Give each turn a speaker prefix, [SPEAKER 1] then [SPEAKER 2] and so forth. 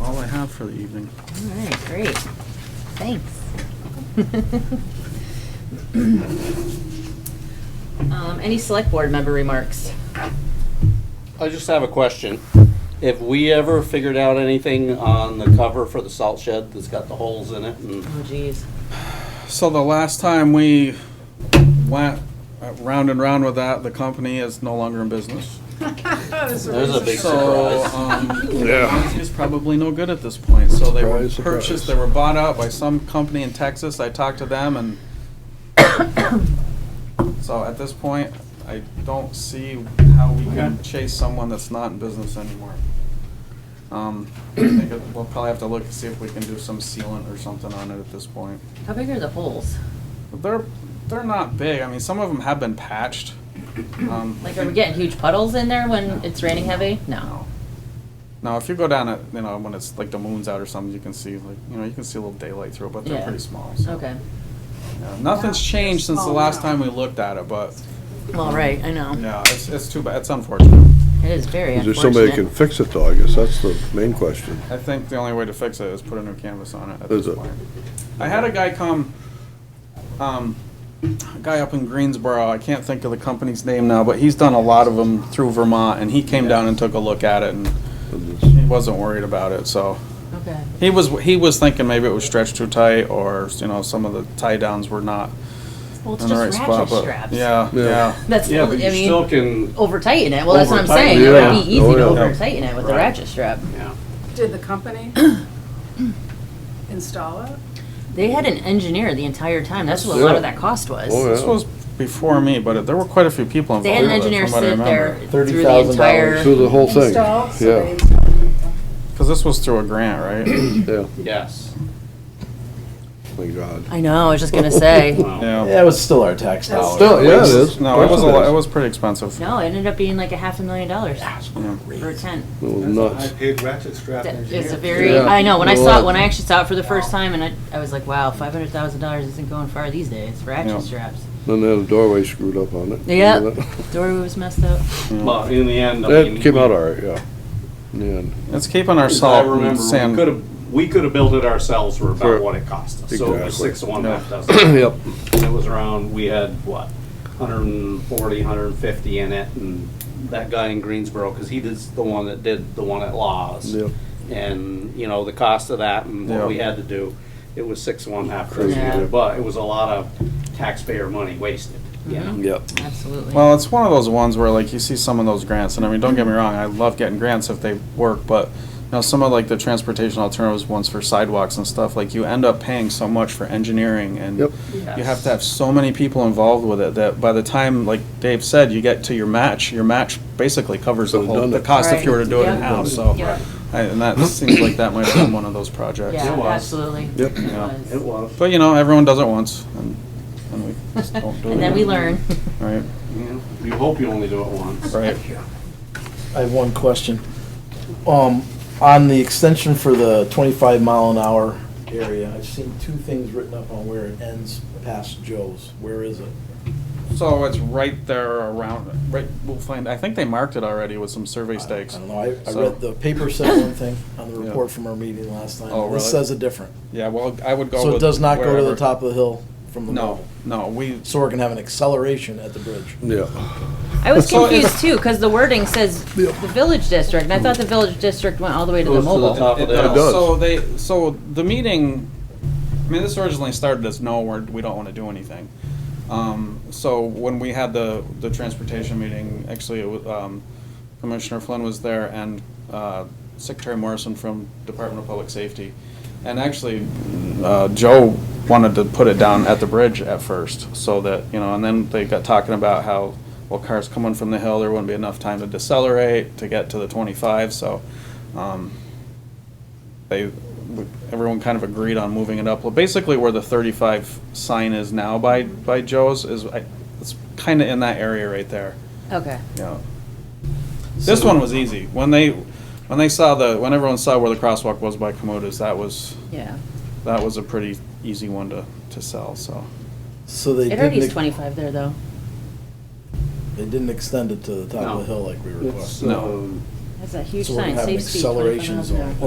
[SPEAKER 1] all I have for the evening.
[SPEAKER 2] All right, great. Thanks. Um, Any select board member remarks?
[SPEAKER 3] I just have a question. Have we ever figured out anything on the cover for the salt shed that's got the holes in it? And
[SPEAKER 2] Oh geez.
[SPEAKER 1] So the last time we went uh, round and round with that, the company is no longer in business.
[SPEAKER 3] There's a big
[SPEAKER 1] So,
[SPEAKER 3] surprise.
[SPEAKER 1] um, is probably no good at this point, so they were
[SPEAKER 4] Surprise, surprise.
[SPEAKER 1] purchased, they were bought out by some company in Texas, I talked to them and so at this point, I don't see how we can chase someone that's not in business anymore. Um, I think it- we'll probably have to look and see if we can do some sealant or something on it at this point.
[SPEAKER 2] How big are the holes?
[SPEAKER 1] But They're, they're not big, I mean, some of them have been patched. Um,
[SPEAKER 2] Like, are we getting huge puddles in there when it's raining heavy? No.
[SPEAKER 1] No. No, if you go down at, you know, when it's like the moon's out or something, you can see like, you know, you can see a little daylight through it, but they're
[SPEAKER 2] Yeah. Oh.
[SPEAKER 1] pretty small. so,
[SPEAKER 2] Okay.
[SPEAKER 1] yeah. Nothing's changed since the last time we looked at it, but
[SPEAKER 2] Well, right, I know.
[SPEAKER 1] yeah, it's, it's too bad. It's unfortunate.
[SPEAKER 2] It is very
[SPEAKER 4] Is there somebody that
[SPEAKER 2] unfortunate.
[SPEAKER 4] can fix it though, I guess that's the main question.
[SPEAKER 1] I think the only way to fix it is put a new canvas on it at
[SPEAKER 4] Is
[SPEAKER 1] this
[SPEAKER 4] it?
[SPEAKER 1] point. I had a guy come, um, a guy up in Greensboro, I can't think of the company's name now, but he's done a lot of them through Vermont and he came down and took a look at it and he wasn't worried about it, so.
[SPEAKER 2] Okay.
[SPEAKER 1] He was he was thinking maybe it was stretched too tight, or you know some of the tie downs were not
[SPEAKER 2] Well, it's
[SPEAKER 1] in the right
[SPEAKER 2] just
[SPEAKER 1] spot.
[SPEAKER 2] ratchet
[SPEAKER 1] But
[SPEAKER 2] straps.
[SPEAKER 1] yeah,
[SPEAKER 4] Yeah.
[SPEAKER 1] yeah,
[SPEAKER 2] That's,
[SPEAKER 3] Yeah,
[SPEAKER 2] I
[SPEAKER 3] but you still
[SPEAKER 2] mean,
[SPEAKER 3] can,
[SPEAKER 2] over tighten it. Well, that's what I'm
[SPEAKER 3] Over-tighten
[SPEAKER 2] saying.
[SPEAKER 3] it,
[SPEAKER 2] It would be
[SPEAKER 4] yeah.
[SPEAKER 2] easy
[SPEAKER 4] Oh,
[SPEAKER 2] to
[SPEAKER 4] yeah.
[SPEAKER 2] over tighten it with the
[SPEAKER 3] Right.
[SPEAKER 2] ratchet strap.
[SPEAKER 3] yeah.
[SPEAKER 5] Did the company install it?
[SPEAKER 2] They had an engineer the entire time. That's what a lot of that cost was.
[SPEAKER 4] Oh,
[SPEAKER 1] This was before me, but there were quite a few people involved.
[SPEAKER 2] They had an
[SPEAKER 1] with it,
[SPEAKER 2] engineer
[SPEAKER 1] from what I
[SPEAKER 2] sit there
[SPEAKER 1] remember.
[SPEAKER 2] through the entire.
[SPEAKER 4] Through the whole thing,
[SPEAKER 5] Installed, so they
[SPEAKER 4] yeah,
[SPEAKER 5] installed it.
[SPEAKER 1] because this was through a grant, right?
[SPEAKER 4] yeah,
[SPEAKER 3] Yes.
[SPEAKER 4] Oh, my God.
[SPEAKER 2] I know. I was just gonna say.
[SPEAKER 3] Wow.
[SPEAKER 1] yeah.
[SPEAKER 6] Yeah, it was still our tax dollars.
[SPEAKER 4] Still, yeah, it is.
[SPEAKER 1] No, it was a
[SPEAKER 4] Of course
[SPEAKER 1] lot, it was pretty expensive.
[SPEAKER 2] No, it ended up being like a half a million dollars
[SPEAKER 1] Yeah.
[SPEAKER 2] for a tent.
[SPEAKER 4] It was nuts.
[SPEAKER 7] paid ratchet strap
[SPEAKER 2] That
[SPEAKER 7] engineer.
[SPEAKER 2] is a very.
[SPEAKER 4] Yeah.
[SPEAKER 2] I know when I
[SPEAKER 4] Well,
[SPEAKER 2] saw
[SPEAKER 4] uh,
[SPEAKER 2] it, when I actually saw it for the first time, and I, I was like, wow, five hundred thousand dollars isn't going far these days. Ratchet
[SPEAKER 1] Yeah.
[SPEAKER 2] straps.
[SPEAKER 4] Then they had a doorway screwed up on it.
[SPEAKER 2] Yep.
[SPEAKER 4] Remember that?
[SPEAKER 2] Dory was messed up.
[SPEAKER 3] Well, in the end, I mean.
[SPEAKER 4] That came out all right, yeah. Yeah,
[SPEAKER 1] It's keeping our
[SPEAKER 3] as I
[SPEAKER 1] salt and
[SPEAKER 3] remember, we could
[SPEAKER 1] sand.
[SPEAKER 3] have, we could have built it ourselves for
[SPEAKER 4] For-
[SPEAKER 3] about what it cost us. So it was
[SPEAKER 4] Exactly.
[SPEAKER 3] six to one,
[SPEAKER 1] Yeah.
[SPEAKER 3] half dozen.
[SPEAKER 4] yep,
[SPEAKER 3] And it was around, we had, what, 140, 150 in it, and that guy in Greensboro, because he is the one that did the one at Laws.
[SPEAKER 4] yep.
[SPEAKER 3] And, you know, the cost of that and
[SPEAKER 1] Yeah.
[SPEAKER 3] what we had to do, it was six to one, half
[SPEAKER 4] Crazy.
[SPEAKER 3] dozen.
[SPEAKER 2] Yeah.
[SPEAKER 3] But it was a lot of taxpayer money wasted, you know?
[SPEAKER 4] Yep.
[SPEAKER 2] Absolutely.
[SPEAKER 1] Well, it's one of those ones where like you see some of those grants, and I mean, don't get me wrong, I love getting grants if they work, but you know, some of like the transportation alternatives ones for sidewalks and stuff, like you end up paying so much for engineering and
[SPEAKER 4] Yep.
[SPEAKER 1] you have to have so many people involved with it that by the time, like Dave said, you get to your match, your match basically covers the
[SPEAKER 4] Could've
[SPEAKER 1] whole,
[SPEAKER 4] done
[SPEAKER 1] the
[SPEAKER 4] it.
[SPEAKER 1] cost if you were
[SPEAKER 2] Right.
[SPEAKER 1] to do it
[SPEAKER 2] Yeah.
[SPEAKER 1] in-house, so.
[SPEAKER 2] Yeah.
[SPEAKER 1] I- And that seems like that might have been one of those projects.
[SPEAKER 2] yeah,
[SPEAKER 3] was.
[SPEAKER 2] absolutely.
[SPEAKER 4] Yep.
[SPEAKER 2] It was.
[SPEAKER 3] It was.
[SPEAKER 1] But you know, everyone does it once and, and we just don't do it.
[SPEAKER 2] And then we learn.
[SPEAKER 1] Right,
[SPEAKER 3] you know? You hope you only do it once.
[SPEAKER 1] right.
[SPEAKER 6] I have one question. Um, on the extension for the twenty-five mile an hour area, I've seen two things written up on where it ends past Joe's. Where is it?
[SPEAKER 1] So it's right there around, right, we'll find, I think they marked it already with some survey stakes.
[SPEAKER 6] I don't know. I, I
[SPEAKER 1] So-
[SPEAKER 6] read, the paper said one thing on the
[SPEAKER 1] Yeah.
[SPEAKER 6] report from our meeting last time.
[SPEAKER 1] Oh,
[SPEAKER 6] and This
[SPEAKER 1] really?
[SPEAKER 6] says a different.
[SPEAKER 1] Yeah, well, I would go
[SPEAKER 6] So it
[SPEAKER 1] with
[SPEAKER 6] does not go to the
[SPEAKER 1] wherever.
[SPEAKER 6] top of the hill from the
[SPEAKER 1] No,
[SPEAKER 6] mall.
[SPEAKER 1] no, we,
[SPEAKER 6] So we're gonna have an acceleration at the bridge.
[SPEAKER 4] Yeah,
[SPEAKER 2] I was
[SPEAKER 1] So it's-
[SPEAKER 2] confused too, because the wording says the village district, and I thought the village district went all the way to the
[SPEAKER 3] Goes to the
[SPEAKER 2] mobile.
[SPEAKER 3] top.
[SPEAKER 1] It
[SPEAKER 3] It does.
[SPEAKER 1] does. So they, so the meeting, I mean, this originally started as no, we're, we don't wanna do anything. Um, so when we had the, the transportation meeting, actually, it was, um, Commissioner Flynn was there and, uh, Secretary Morrison from Department of Public Safety. And actually, uh, Joe wanted to put it down at the bridge at first, so that, you know, and then they got talking about how, well, cars coming from the hill, there wouldn't be enough time to decelerate to get to the twenty-five, so, um, they, everyone kind of agreed on moving it up. Well, basically where the thirty-five sign is now by, by Joe's is, I- it's kind of in that area right there,
[SPEAKER 2] Okay.
[SPEAKER 1] you know. This one was easy. When they, when they saw the, when everyone saw where the crosswalk was by Komodos, that was,
[SPEAKER 2] Yeah.
[SPEAKER 1] that was a pretty easy one to, to sell, so.
[SPEAKER 6] So they
[SPEAKER 2] It already
[SPEAKER 6] didn't,
[SPEAKER 2] is
[SPEAKER 6] ex-
[SPEAKER 2] twenty-five there, though.
[SPEAKER 6] they didn't extend it to the top
[SPEAKER 3] No.
[SPEAKER 6] of the hill like we requested.
[SPEAKER 3] It's,
[SPEAKER 1] No.
[SPEAKER 3] um,
[SPEAKER 2] That's a huge
[SPEAKER 6] So we're
[SPEAKER 2] sign,
[SPEAKER 6] gonna have an
[SPEAKER 2] safe speed, twenty-five
[SPEAKER 6] acceleration
[SPEAKER 2] miles an
[SPEAKER 6] zone.
[SPEAKER 2] hour.